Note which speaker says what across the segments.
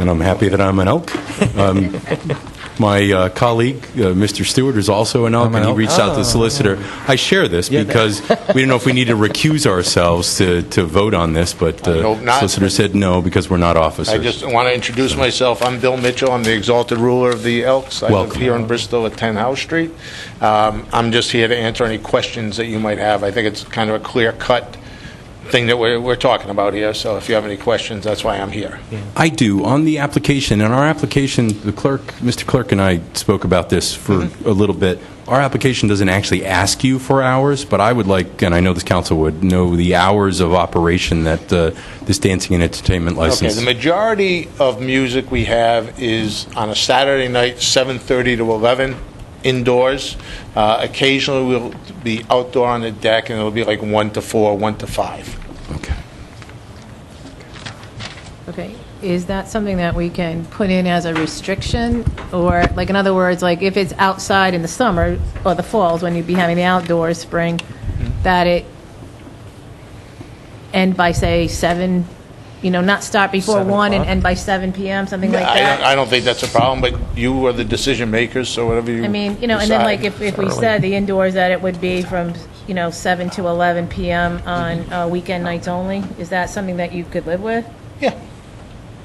Speaker 1: and I'm happy that I'm an elk. Um, My uh, colleague, uh, Mr. Stewart, is also an elk,
Speaker 2: an
Speaker 1: and he
Speaker 2: elk. Oh.
Speaker 1: reached out to the solicitor. I share this because we didn't know if we needed to recuse ourselves to to vote on this, but the
Speaker 3: hope not.
Speaker 1: solicitor said no, because we're not
Speaker 3: I
Speaker 1: officers.
Speaker 3: just want to introduce myself. I'm Bill Mitchell. I'm the exalted ruler of the Elks. I live
Speaker 1: Welcome.
Speaker 3: here in Bristol at 10 House Street. Um, I'm just here to answer any questions that you might have. I think it's kind of a clear-cut thing that we're we're talking about here, so if you have any questions, that's why I'm here.
Speaker 1: I do. On the application, and our application, the clerk, Mr. Clerk and I spoke about this for
Speaker 2: Mm-hmm.
Speaker 1: a little bit. Our application doesn't actually ask you for hours, but I would like, and I know this council would, know the hours of operation that uh, this dancing and entertainment
Speaker 3: Okay,
Speaker 1: license.
Speaker 3: the majority of music we have is on a Saturday night, 7:30 to 11, indoors. Uh, Occasionally, we'll be outdoor on the deck, and it'll be like 1 to 4, 1 to 5.
Speaker 1: Okay.
Speaker 4: Okay, is that something that we can put in as a restriction? Or, like, in other words, like, if it's outside in the summer or the falls, when you'd be having the outdoor spring, that it end by, say, 7, you know, not start before 1 and end by 7 PM, something like
Speaker 3: I don't,
Speaker 4: that?
Speaker 3: I don't think that's a problem, but you are the decision makers, so whatever you
Speaker 4: I mean, you know, and then like,
Speaker 3: decide.
Speaker 4: if, if we said the indoors, that it would be from, you know, 7 to 11 PM on uh, weekend nights only? Is that something that you could live with?
Speaker 3: Yeah.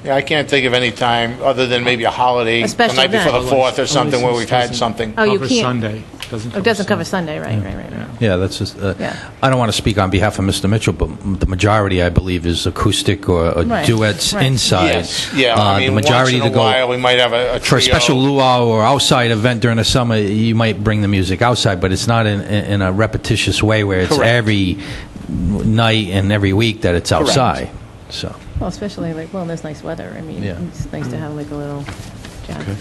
Speaker 3: Yeah, I can't think of any time, other than maybe a holiday,
Speaker 4: A
Speaker 3: the
Speaker 4: special
Speaker 3: night before the
Speaker 4: event.
Speaker 3: 4th or something, where
Speaker 5: Otherwise,
Speaker 3: we've
Speaker 5: this
Speaker 3: had
Speaker 5: doesn't
Speaker 3: something.
Speaker 4: Oh, you
Speaker 5: Cover
Speaker 4: can't-
Speaker 5: Sunday. Doesn't
Speaker 4: Oh, It doesn't cover Sunday, right, right, right, right.
Speaker 2: Yeah, that's just, uh,
Speaker 4: Yeah.
Speaker 2: I don't want to speak on behalf of Mr. Mitchell, but m- the majority, I believe, is acoustic or uh,
Speaker 4: Right,
Speaker 2: duets
Speaker 4: right.
Speaker 2: inside.
Speaker 3: Yes, yeah,
Speaker 2: Uh,
Speaker 3: I mean,
Speaker 2: the
Speaker 3: once
Speaker 2: majority
Speaker 3: in
Speaker 2: to
Speaker 3: a
Speaker 2: go
Speaker 3: while, we might have a a
Speaker 2: For a special
Speaker 3: trio.
Speaker 2: luau or outside event during the summer, you might bring the music outside, but it's not in, in in a repetitious way where it's
Speaker 3: Correct.
Speaker 2: every night and every week that it's outside. So,
Speaker 4: Well, especially like, well, there's nice weather. I mean,
Speaker 2: Yeah.
Speaker 4: it's nice
Speaker 1: Mm-hmm.
Speaker 4: to have like a little jazz.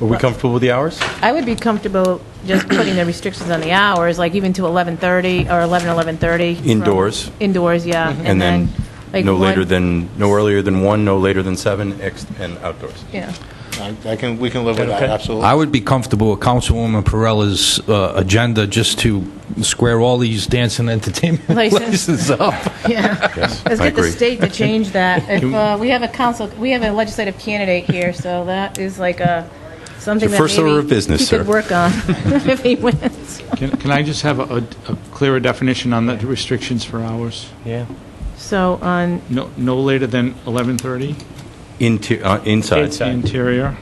Speaker 1: Are we comfortable with the hours?
Speaker 4: I would be comfortable just putting the restrictions on the hours, like even to 11:30 or 11, 11:30. from-
Speaker 1: Indoors. Mm-hmm.
Speaker 4: Indoors, yeah.
Speaker 1: And then,
Speaker 4: like,
Speaker 1: no later
Speaker 4: one-
Speaker 1: than, no earlier than 1, no later than 7, ex- and outdoors.
Speaker 4: Yeah.
Speaker 3: I I can, we can live with that, absolutely.
Speaker 2: I would be comfortable with Councilwoman Perella's uh, agenda just to square all these dance and entertainment
Speaker 4: License.
Speaker 2: licenses up.
Speaker 4: Yeah.
Speaker 1: Yes,
Speaker 4: Let's
Speaker 1: I
Speaker 4: get the
Speaker 1: agree.
Speaker 4: state to change that. If, uh, we have a council, we have a legislative candidate here, so that is like a, something
Speaker 1: It's your
Speaker 4: that
Speaker 1: first order
Speaker 4: maybe
Speaker 1: of business,
Speaker 4: He
Speaker 1: sir.
Speaker 4: could work on if he wins.
Speaker 5: Can can I just have a- a a clearer definition on the restrictions for hours?
Speaker 6: Yeah.
Speaker 4: So on,
Speaker 5: No no later than 11:30?
Speaker 1: Inter- uh, Inside,
Speaker 6: Inside.
Speaker 5: Interior?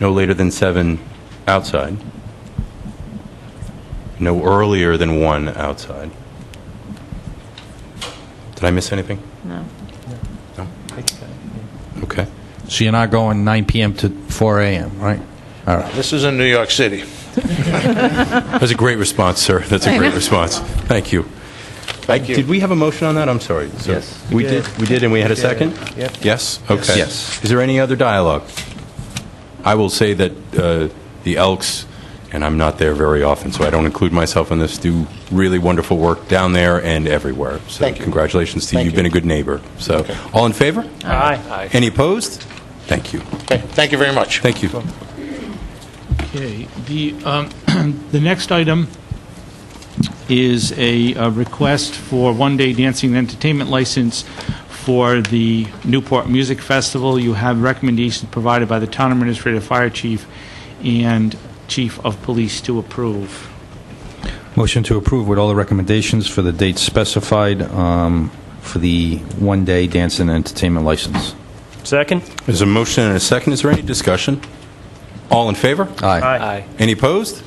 Speaker 1: no later than 7 outside, no earlier than 1 outside. Did I miss anything?
Speaker 4: no.
Speaker 1: Okay.
Speaker 2: So you're not going 9 p.m. to 4 a.m., right? All right.
Speaker 3: This is in New York City.
Speaker 1: That's a great response, sir. That's a great response. Thank you.
Speaker 3: Thank you.
Speaker 1: Did we have a motion on that? I'm sorry. sir.
Speaker 6: Yes.
Speaker 1: We
Speaker 6: We
Speaker 1: did,
Speaker 6: did.
Speaker 1: we did, and we had a second?
Speaker 6: Yep.
Speaker 1: Yes? Okay.
Speaker 2: Yes.
Speaker 1: Is there any other dialogue? I will say that uh, the Elks, and I'm not there very often, so I don't include myself in this, do really wonderful work down there and everywhere.
Speaker 3: Thank
Speaker 1: So
Speaker 3: you.
Speaker 1: congratulations to you.
Speaker 3: Thank
Speaker 1: You've been a
Speaker 3: you.
Speaker 1: good neighbor. So, all in favor?
Speaker 6: Aye.
Speaker 1: Any opposed? Thank you.
Speaker 3: Okay, Thank you very much.
Speaker 1: Thank you.
Speaker 5: Okay, the, um, the next item is a uh, request for one-day dancing and entertainment license for the Newport Music Festival. You have recommendations provided by the Town Administrative Fire Chief and Chief of Police to approve.
Speaker 2: Motion to approve with all the recommendations for the dates specified um, for the one-day dance and entertainment license.
Speaker 6: Second?
Speaker 1: There's a motion and a second. Is there any discussion? All in favor?
Speaker 2: Aye.
Speaker 6: Aye.
Speaker 1: Any opposed?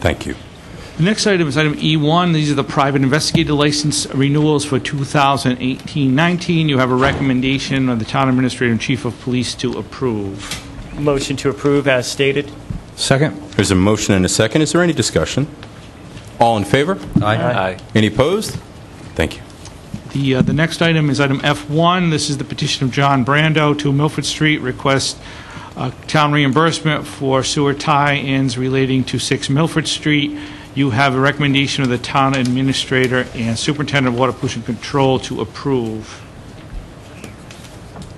Speaker 1: Thank you.
Speaker 5: The next item is item E1. These are the private investigator license renewals for 2018-19. You have a recommendation of the Town Administrator and Chief of Police to approve.
Speaker 6: Motion to approve as stated?
Speaker 2: Second?
Speaker 1: There's a motion and a second. Is there any discussion? All in favor?
Speaker 6: Aye.
Speaker 1: Any opposed? Thank you.
Speaker 5: The, uh, the next item is item F1. This is the petition of John Brando to Milford Street, request uh, town reimbursement for sewer tie-ins relating to 6 Milford Street. You have a recommendation of the town administrator and superintendent of water pollution control to approve.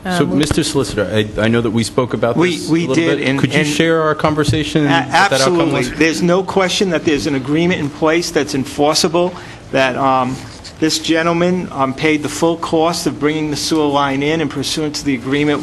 Speaker 1: So, Mr. Solicitor, I I know that we spoke about
Speaker 7: We-
Speaker 1: this a
Speaker 7: we
Speaker 1: little
Speaker 7: did,
Speaker 1: bit.
Speaker 7: and-
Speaker 1: Could you
Speaker 7: and-
Speaker 1: share our conversation?
Speaker 7: A-
Speaker 1: and what that outcome
Speaker 7: Absolutely.
Speaker 1: was?
Speaker 7: There's no question that there's an agreement in place that's enforceable, that um, this gentleman um, paid the full cost of bringing the sewer line in, and pursuant to the agreement,